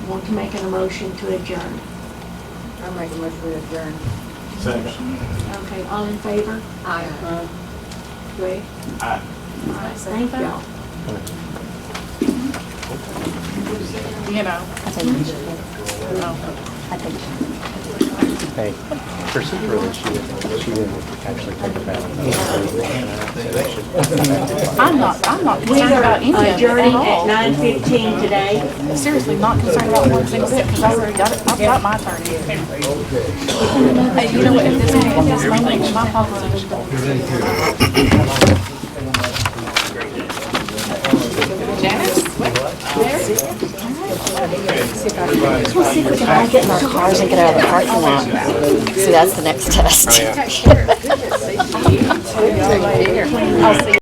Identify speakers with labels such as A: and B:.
A: want to make an emotion to adjourn.
B: I'll make a motion to adjourn.
C: Second.
A: Okay, all in favor?
B: Aye.
A: Great.
C: Aye.
A: All right, thank y'all.
D: you know.
E: Hey, her sister, she didn't, she didn't actually take a bath.
D: I'm not, I'm not
A: We
D: concerned about any of
A: are
D: it at
A: adjourning at
D: all.
A: nine fifteen today.
D: Seriously, not concerned about one single bit, because I already got it, I've got my attorney. Hey, you know what, if this, if this moment, my policy. Janice, what?
F: We'll see if we can all get in our cars and get out of the parking lot. See, that's the next test.
B: I'll see